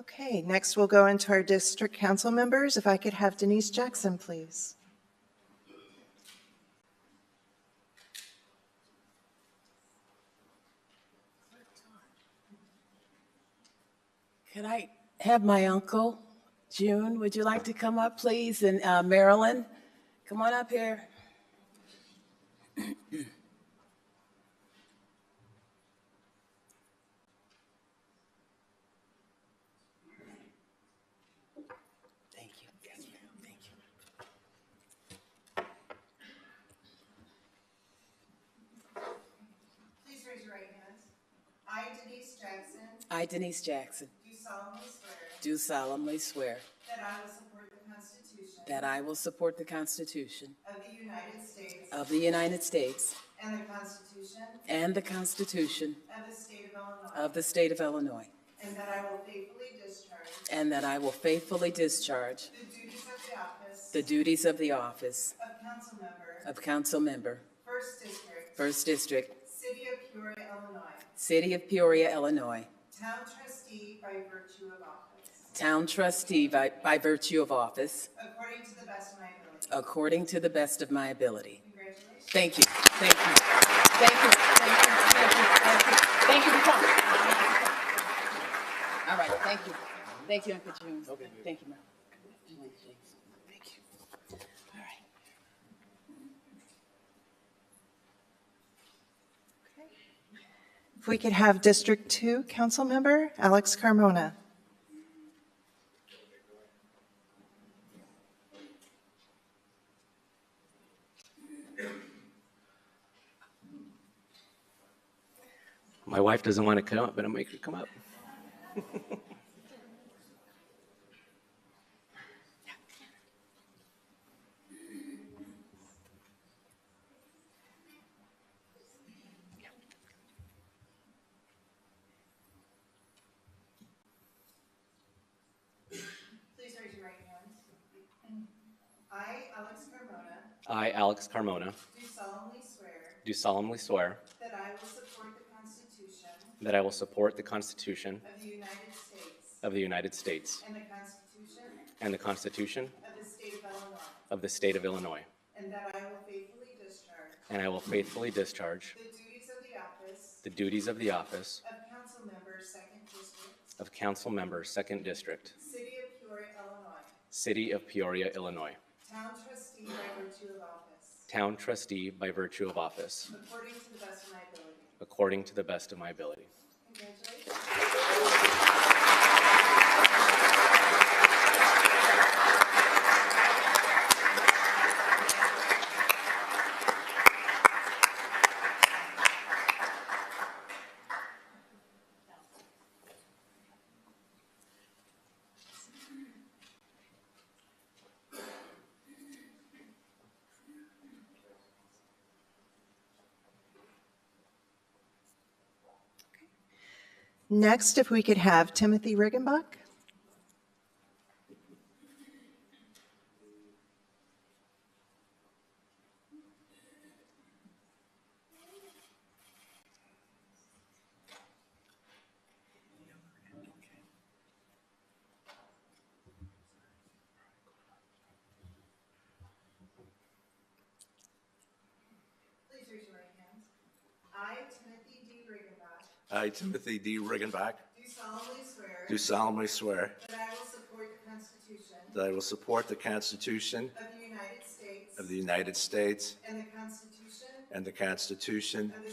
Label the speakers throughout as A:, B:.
A: Okay, next we'll go into our district council members. If I could have Denise Jackson, please.
B: Could I have my uncle, June, would you like to come up, please? And uh, Marilyn, come on up here. Thank you. Yes, ma'am. Thank you.
C: Please raise your right hand. I, Denise Jackson,
B: I, Denise Jackson,
C: do solemnly swear
B: do solemnly swear
C: that I will support the Constitution
B: that I will support the Constitution
C: of the United States
B: of the United States
C: and the Constitution
B: and the Constitution
C: of the State of Illinois,
B: of the State of Illinois,
C: and that I will faithfully discharge
B: and that I will faithfully discharge
C: the duties of the office
B: the duties of the office
C: of council member,
B: of council member,
C: First District,
B: 1st District,
C: City of Peoria, Illinois,
B: City of Peoria, Illinois,
C: Town Trustee by virtue of office,
B: Town Trustee by by virtue of office,
C: according to the best of my ability.
B: according to the best of my ability.
C: Congratulations.
B: Thank you, thank you, thank you, thank you, thank you, thank you, thank you for coming. All right, thank you, thank you, Uncle June. Thank you, Ma'am. Thank you. All right.
A: If we could have District Two Council Member Alex Carmona.
D: My wife doesn't want to come up, but I'll make her come up.
C: Please raise your right hand. I, Alex Carmona,
D: I, Alex Carmona,
C: do solemnly swear
D: do solemnly swear
C: that I will support the Constitution
D: that I will support the Constitution
C: of the United States
D: of the United States
C: and the Constitution
D: and the Constitution
C: of the State of Illinois,
D: of the State of Illinois,
C: and that I will faithfully discharge
D: and I will faithfully discharge
C: the duties of the office
D: the duties of the office
C: of Council Member, Second District,
D: of Council Member, 2nd District,
C: City of Peoria, Illinois,
D: City of Peoria, Illinois,
C: Town Trustee by virtue of office,
D: Town Trustee by virtue of office,
C: according to the best of my ability.
D: according to the best of my ability.
C: Congratulations.
A: Next, if we could have Timothy Riggenbach.
C: Please raise your right hand. I, Timothy D. Riggenbach,
E: I, Timothy D. Riggenbach,
C: do solemnly swear
E: do solemnly swear
C: that I will support the Constitution
E: that I will support the Constitution
C: of the United States
E: of the United States
C: and the Constitution
E: and the Constitution
C: of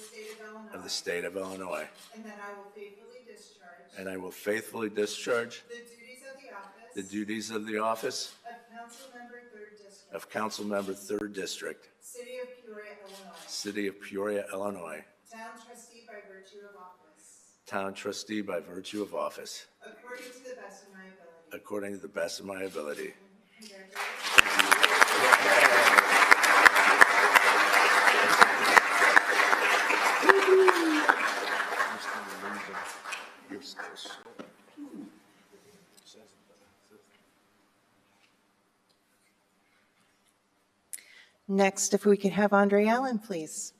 C: the State of
E: of the
C: Illinois,
E: State of Illinois,
C: and that I will faithfully discharge
E: and I will faithfully discharge
C: the duties of the
E: the
C: office
E: duties of the office
C: of Councilmember Third District,
E: of Councilmember, 3rd District,
C: City of Peoria, Illinois,
E: City of Peoria, Illinois,
C: Town Trustee by virtue of office,
E: Town Trustee by virtue of office,
C: according to the best of my ability.
E: according to the best of my ability.
C: Congratulations.
A: Next, if we could have Andre Allen, please.